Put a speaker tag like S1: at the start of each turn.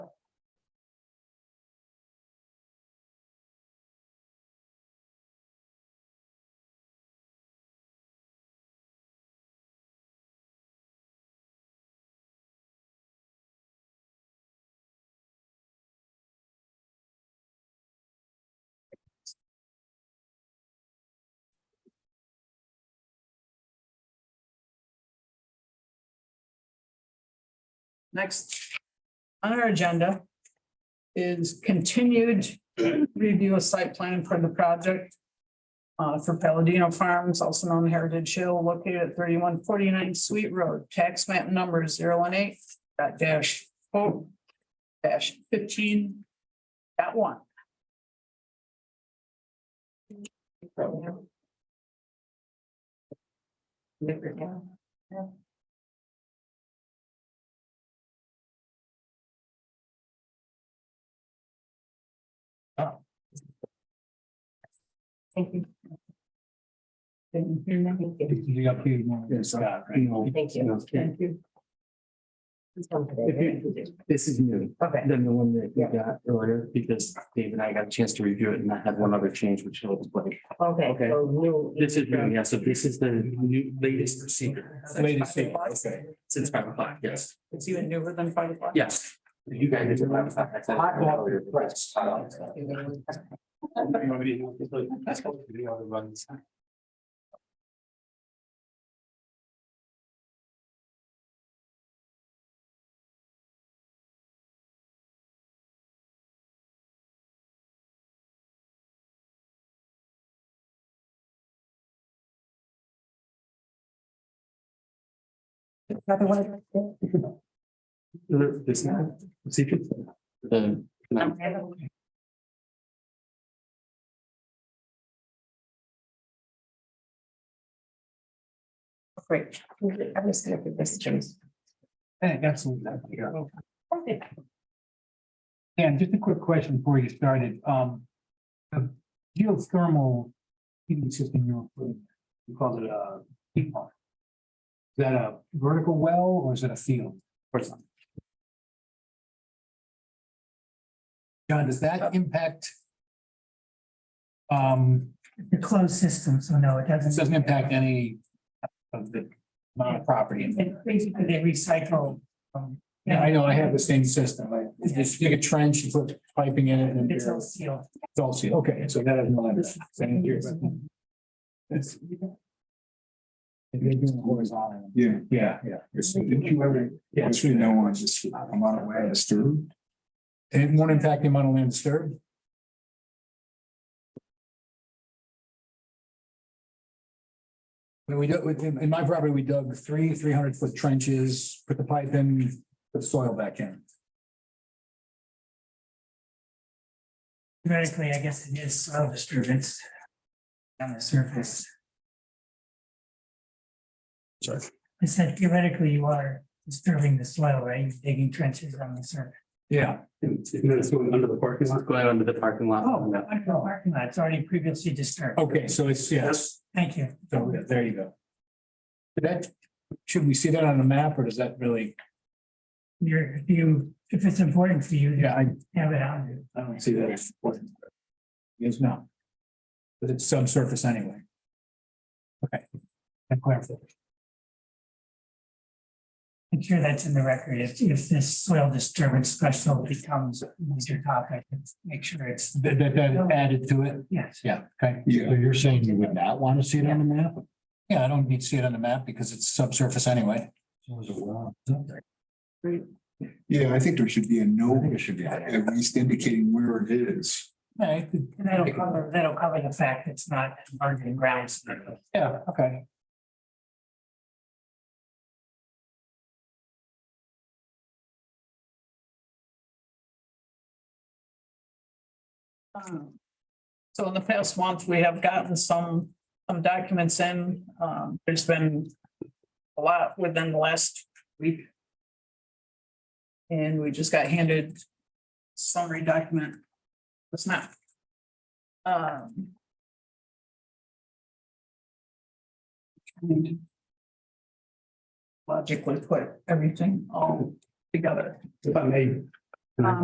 S1: Next on our agenda is continued review of site plan for the project uh, for Palladino Farms, also known as Heritage Hill, located at thirty-one forty-nine Sweet Road, tax map number 018 dot dash four dash fifteen dot one.
S2: Thank you.
S1: Thank
S2: Thank
S3: You got paid more.
S4: Yes, I-
S3: You know,
S2: you.
S4: Okay,
S1: you.
S2: It's one today, right?
S4: This is new
S2: Okay,
S4: than the one that we got earlier because Dave and I got a chance to review it and I had one other change which he'll explain.
S2: okay.
S4: Okay.
S2: so new-
S4: This is new, yeah, so this is the new latest procedure.
S3: Latest procedure,
S4: okay. Since five o'clock, yes,
S1: It's even newer than five o'clock.
S4: yes. You guys. are five o'clock, I said-
S3: Hot water, press.
S4: Uh, Uh,
S2: Another one?
S4: This now, procedure. The.
S2: Great. I'm just gonna give this to you.
S3: Hey, absolutely. Yeah. And just a quick question before you started, um. The geothermal heating system you were putting, you called it a heat pump. Is that a vertical well or is it a field?
S4: Person.
S3: John, does that impact? Um,
S5: The closed system, so no, it
S3: this
S5: doesn't.
S3: doesn't impact any of the amount of property. in there.
S5: And basically, they recycle. um,
S3: Yeah, I know, I have the same system, I you just dig a trench, you put piping in it and
S5: It's all
S3: it's
S5: sealed.
S3: all sealed, okay, so that doesn't matter. Same here, but- It's- If They're doing horizontal.
S6: Yeah,
S3: Yeah, yeah.
S6: it's, did you ever, it's really no one's just, I'm on a way to Stu.
S3: And it won't impact the amount of land disturbed? I mean, we dug, in in my property, we dug three three hundred foot trenches, put the pipe in, put soil back in.
S5: Theoretically, I guess it is soil disturbance on the surface.
S3: Sorry.
S5: I said theoretically, you are disturbing the soil, right? You're Digging trenches on the surface.
S3: Yeah.
S4: And then it's going under the parking lot. Going under the parking lot.
S5: Oh, I know, parking lot, it's already previously disturbed.
S3: Okay, so it's, yes,
S5: Thank you.
S3: so yeah, there you go. That, should we see that on a map or does that really,
S5: You're, if you, if it's important for you,
S3: yeah,
S5: to
S3: I,
S5: have it on you.
S3: I don't see that. as important. Yes, no. But it's subsurface anyway. Okay. That clarifies.
S5: I'm sure that's in the record. If, if this soil disturbance special becomes a major topic, make sure it's,
S3: That, that, that added to it,
S5: yes.
S3: yeah, okay.
S6: Yeah.
S3: So you're saying you would not want to see it on the map? Yeah, I don't need to see it on the map because it's subsurface anyway.
S6: Yeah, I think there should be a
S3: I
S6: note,
S3: think it should be. there.
S6: at least indicating where it is.
S3: Yeah,
S5: And that'll cover, that'll cover the fact it's not bargaining grounds.
S3: yeah, okay.
S1: Um, So in the past month, we have gotten some, some documents in. Um, there's been a lot within the last week. And we just got handed summary document. It's not. Um. Logically put everything all together.
S3: If I may,